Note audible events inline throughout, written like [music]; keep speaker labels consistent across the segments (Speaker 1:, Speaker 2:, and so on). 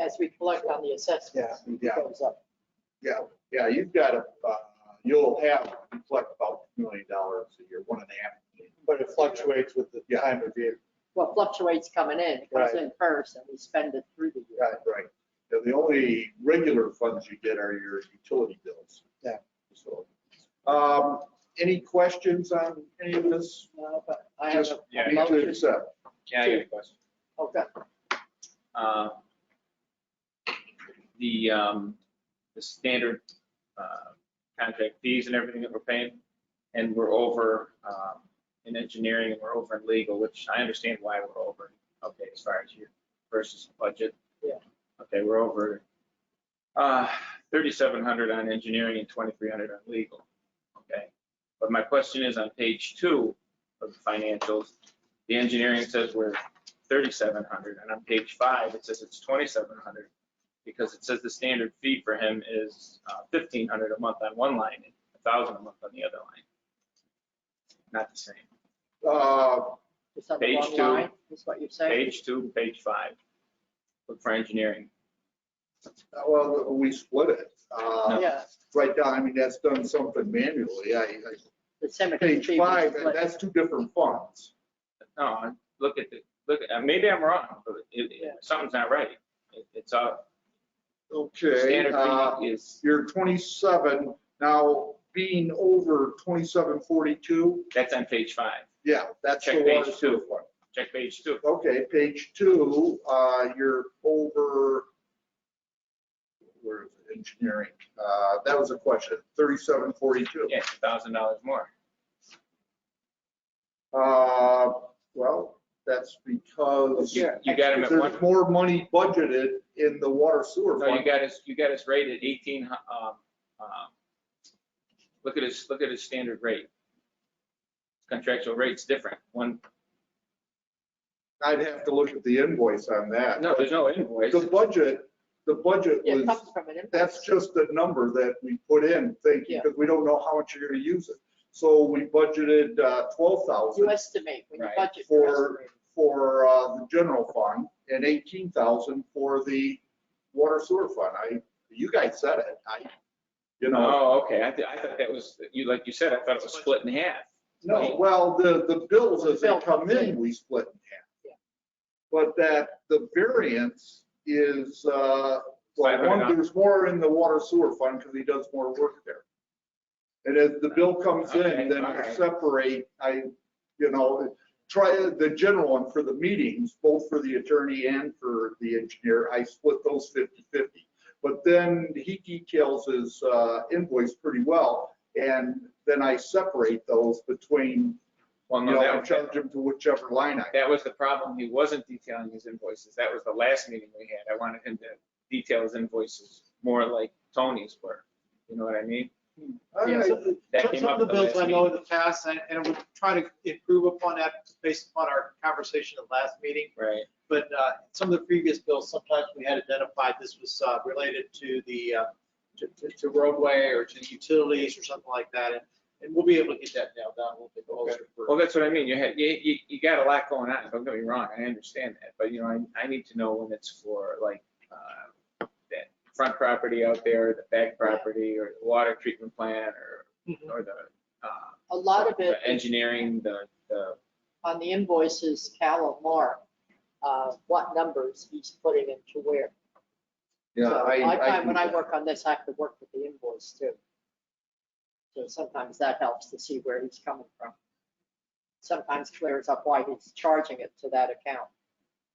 Speaker 1: as we collect on the assessments, it
Speaker 2: Yeah,
Speaker 1: goes up.
Speaker 2: yeah, you've got a, uh, you'll have, you collect about two million dollars a year, one and a half million.
Speaker 3: But it fluctuates with the
Speaker 2: Yeah.
Speaker 3: time of year.
Speaker 1: Well, fluctuates coming in, it comes
Speaker 3: Right.
Speaker 1: in first and we spend it through the year.
Speaker 2: Right. And the only regular funds you get are your utility bills.
Speaker 3: Yeah.
Speaker 2: So, um, any questions on any of this?
Speaker 1: Uh, But I have
Speaker 2: Just
Speaker 1: a- oh,
Speaker 2: need
Speaker 1: a
Speaker 2: to
Speaker 1: motion,
Speaker 2: accept.
Speaker 4: Yeah, I got a question.
Speaker 1: okay,
Speaker 4: Uh, The, um, the standard uh, contract fees and everything that we're paying, and we're over um, in engineering, and we're over in legal, which I understand why we're over, okay, as far as your versus budget.
Speaker 1: Yeah.
Speaker 4: Okay, we're over uh, thirty-seven hundred on engineering and twenty-three hundred on legal, okay? But my question is on page two of the financials, the engineering says we're thirty-seven hundred, and on page five, it says it's twenty-seven hundred, because it says the standard fee for him is uh, fifteen hundred a month on one line, and a thousand a month on the other line. Not the same.
Speaker 2: Uh,
Speaker 1: it's on the
Speaker 4: Page
Speaker 1: wrong
Speaker 4: two.
Speaker 1: line, is what you're saying?
Speaker 4: Page two, page five. Look for engineering.
Speaker 2: well, we split it. Uh,
Speaker 1: Yeah,
Speaker 2: right down, I mean, that's done something manually. I, I,
Speaker 1: the cemetery.
Speaker 2: page
Speaker 1: fee was
Speaker 2: five,
Speaker 1: split.
Speaker 2: that's two different funds.
Speaker 4: No, I- look at the, look, at- maybe I'm wrong, but it-
Speaker 1: Yeah.
Speaker 4: it, something's not right. It- It's a
Speaker 2: Okay.
Speaker 4: standard
Speaker 2: uh,
Speaker 4: fee is,
Speaker 2: you're 27, now being over 2742,
Speaker 4: that's on page five.
Speaker 2: yeah, that's the
Speaker 4: Check
Speaker 2: water
Speaker 4: page
Speaker 2: sewer
Speaker 4: two.
Speaker 2: fund.
Speaker 4: Check page two.
Speaker 2: Okay, page two, uh, you're over, where is it, engineering? Uh, That was a question, 3742.
Speaker 4: Yeah, it's a thousand dollars more.
Speaker 2: Uh, Well, that's because
Speaker 1: Yeah.
Speaker 4: You got him at one.
Speaker 2: there's more money budgeted in the water sewer
Speaker 4: No, you
Speaker 2: fund.
Speaker 4: got us, you got us rated eighteen, hu- um, um, look at his, look at his standard rate. Contractual rate's different. One,
Speaker 2: I'd have to look at the invoice on that.
Speaker 4: no, there's no invoice.
Speaker 2: The budget, the budget
Speaker 1: Yeah,
Speaker 2: was.
Speaker 1: it comes from an invoice.
Speaker 2: That's just a number that we put in thinking,
Speaker 1: Yeah.
Speaker 2: because we don't know how much you're gonna use it. So we budgeted uh, twelve
Speaker 1: You
Speaker 2: thousand
Speaker 1: estimate, when you
Speaker 4: Right.
Speaker 1: budget. you
Speaker 2: for,
Speaker 1: estimate.
Speaker 2: for uh, the general fund and eighteen thousand for the water sewer fund. I, you guys said it, I, you know.
Speaker 4: Oh, okay. I, thi- I thought that was, you, like you said, I thought it was split in half.
Speaker 2: No, well, the, the bills as they
Speaker 1: Bill.
Speaker 2: come in, we split in
Speaker 1: Yeah.
Speaker 2: half. But that, the variance is, uh, well, one,
Speaker 4: $500.
Speaker 2: there's more in the water sewer fund because he does more work there. And as the bill comes in,
Speaker 4: Okay,
Speaker 2: then I
Speaker 4: alright.
Speaker 2: separate, I, you know, try the general one for the meetings, both for the attorney and for the engineer. I split those 50/50. But then he details his uh, invoice pretty well. And then I separate those between,
Speaker 4: Well,
Speaker 2: you
Speaker 4: no,
Speaker 2: know, I
Speaker 4: that,
Speaker 2: charge him to whichever line item.
Speaker 4: that was the problem. He wasn't detailing his invoices. That was the last meeting we had. I wanted him to detail his invoices more like Tony's were. You know what I mean?
Speaker 3: Yeah,
Speaker 2: Alright.
Speaker 3: some-
Speaker 4: That
Speaker 3: some-
Speaker 4: came
Speaker 3: Some
Speaker 4: up
Speaker 3: of
Speaker 4: at the
Speaker 3: the bills I
Speaker 4: last
Speaker 3: know in the past, and and we're trying to improve upon that based upon our conversation at last meeting.
Speaker 4: Right.
Speaker 3: But uh, some of the previous bills, sometimes we had identified this was uh, related to the, uh, to- to- to roadway or to utilities or something like that. And- And we'll be able to get that nailed down a little bit closer. for-
Speaker 4: Well, that's what I mean. You had, you, you, you got a lot going on. Don't get me wrong. I understand that. But you know, I, I need to know when it's for like, uh, that front property out there, the back property or the water treatment plant
Speaker 3: Mhm.
Speaker 4: or, or the, uh,
Speaker 1: Mm-hmm. A lot of it
Speaker 4: the Engineering, the, the,
Speaker 1: on the invoices, Cal and Mark, uh, what numbers he's putting into where.
Speaker 2: Yeah,
Speaker 1: So
Speaker 2: I- I
Speaker 1: find
Speaker 2: do
Speaker 1: when I
Speaker 2: that.
Speaker 1: work on this, I have to work with the invoice too. So sometimes that helps to see where he's coming from. Sometimes clears up why he's charging it to that account.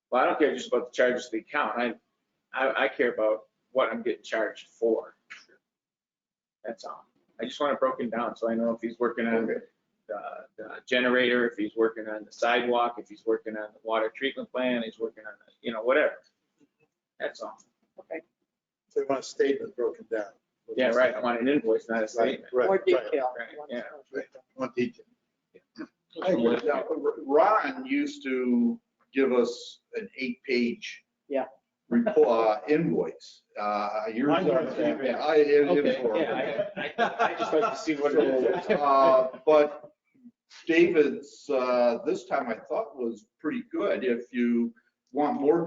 Speaker 4: well, I don't care just about the charges of the account. I, I, I care about what I'm getting charged for. That's all. I just want it broken down so I know if he's working on
Speaker 2: Okay.
Speaker 4: the the generator, if he's working on the sidewalk, if he's working on the water treatment plant, he's working on, the- you know, whatever. That's all.
Speaker 1: Okay,
Speaker 5: They want a statement broken down.
Speaker 4: Yeah, right. I want an invoice, not a statement.
Speaker 5: Right,
Speaker 1: more
Speaker 5: right.
Speaker 1: detail.
Speaker 4: right,
Speaker 1: Once-
Speaker 4: yeah.
Speaker 1: once-
Speaker 5: Want detail.
Speaker 2: I would. Now, Ron used to give us an eight-page.
Speaker 1: Yeah.
Speaker 2: report, uh, invoice. Uh, yours
Speaker 3: Mine
Speaker 2: are-
Speaker 3: was three-page.
Speaker 2: Yeah, I- it-
Speaker 4: Okay,
Speaker 2: it's horrible.
Speaker 4: yeah, I- I I just like to see what it is.
Speaker 2: [laughs] So, uh, But David's, uh, this time I thought was pretty good. If you want more